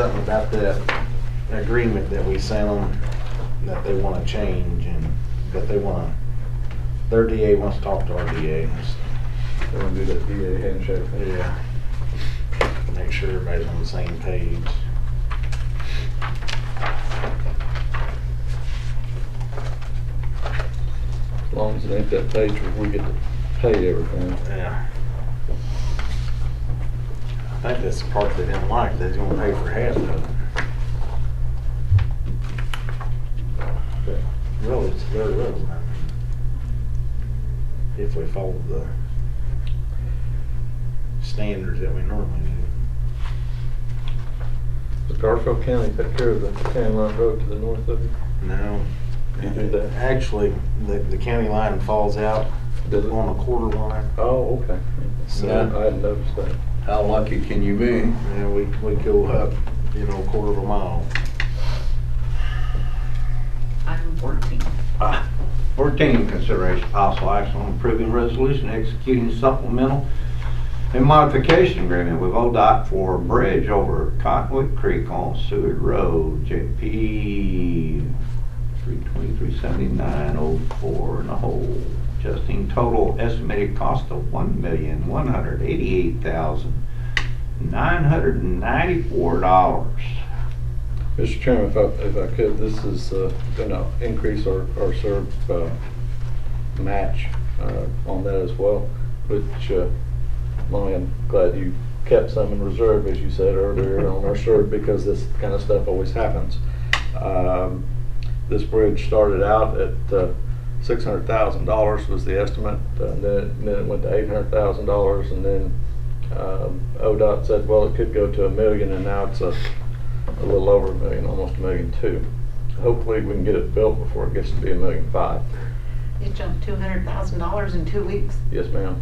something about that agreement that we sent them, that they wanna change and, but they wanna, their DA wants to talk to our DA. They want to do that DA handshake. thing. Yeah. Make sure everybody's on the same page. As long as it ain't that page where we get to pay everything. Yeah. I think that's the part they didn't like, they're gonna pay for half of it. But Really, it's their road, I mean, if we follow the standards that we normally do. Does Garfield County take care of the county line road to the north of it? No. You do that? Actually, the, the county line falls out Does it? on a quarter line. Oh, okay. So- Yeah, I hadn't noticed that. How lucky can you be? And we, we go up, you know, a quarter of a mile. I'm working. Ah, Fourteen, consideration possible action on approving resolution executing supplemental and modification agreement with ODOT for a bridge over Cottonwood Creek on Seward Road, JP three twenty-three seventy-nine oh four and a whole. Justing total estimated cost of one million, one hundred eighty-eight thousand, nine hundred and ninety-four dollars. Mr. Chairman, if I, if I could, this is uh, gonna increase our, our serve, uh, match, uh, on that as well, which, uh, Lonnie, I'm glad you kept some in reserve, as you said earlier, on our serve, because this kind of stuff always happens. Um, This bridge started out at, uh, six hundred thousand dollars was the estimate, uh, and then, then it went to eight hundred thousand dollars, and then, um, ODOT said, well, it could go to a million, and now it's a a little over a million, almost a million two. Hopefully, we can get it built before it gets to be a million five. It jumped two hundred thousand dollars in two weeks. Yes, ma'am.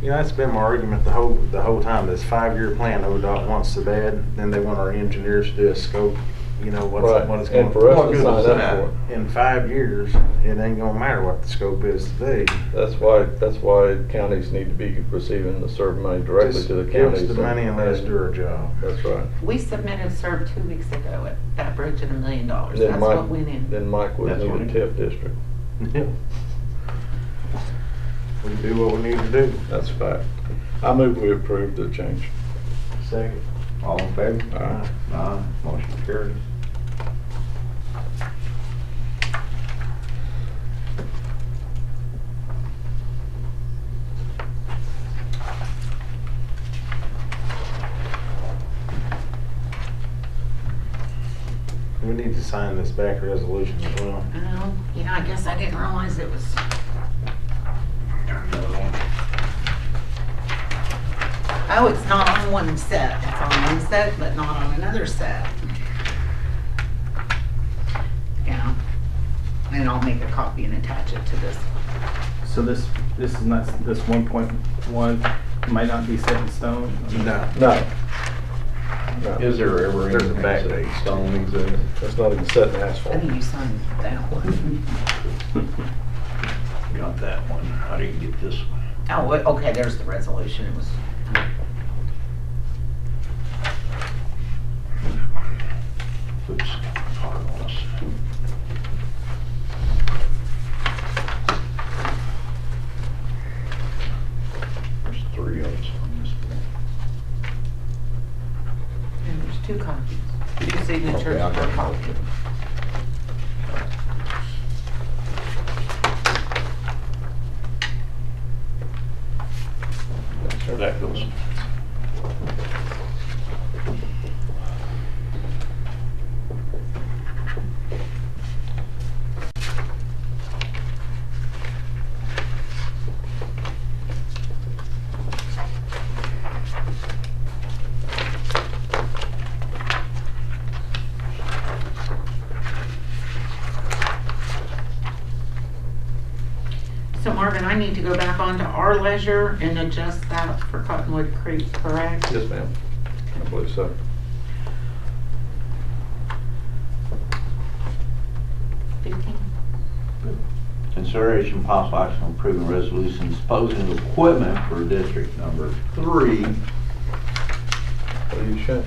You know, that's been my argument the whole, the whole time, this five-year plan ODOT wants so bad, then they want our engineers to do a scope, you know, what's, Right, what it's going. and for us what to good sign is up that? for it. In five years, it ain't gonna matter what the scope is today. That's why, that's why counties need to be receiving the CERB money directly Just to the give us counties. the money and let us do our job. That's right. We submitted SERB two weeks ago at that bridge at a million dollars. Then That's Mike- what went in. Then Mike would That's what need a it- TIF district. Yeah. We do what we need to do. That's a fact. I move we approve the change. Second. All in favor? Aye. Aye. Motion carries. We need to sign this back resolution as well. Oh, yeah, I guess I didn't realize it was. Oh, it's not on one set. It's on one set, but not on another set. Yeah. And I'll make a copy and attach it to this. So this, this is not, this one point one might not be set in stone? No. No. No, Is there ever There's a anything back that page. stone exists? that's not even set in I asphalt. think you signed that one. Got that one. How do you get this one? Oh, wait, okay, there's the resolution. It was Oops, hard on us. There's three of us on this one. And there's two copies, two signatures Okay, per okay. copy. There that goes. So Marvin, I need to go back onto our leisure and adjust that for Cottonwood Creek, correct? Yes, ma'am. I believe so. Fifteen? Consideration possible action on approving resolution disposing of equipment for district number three. What are you showing?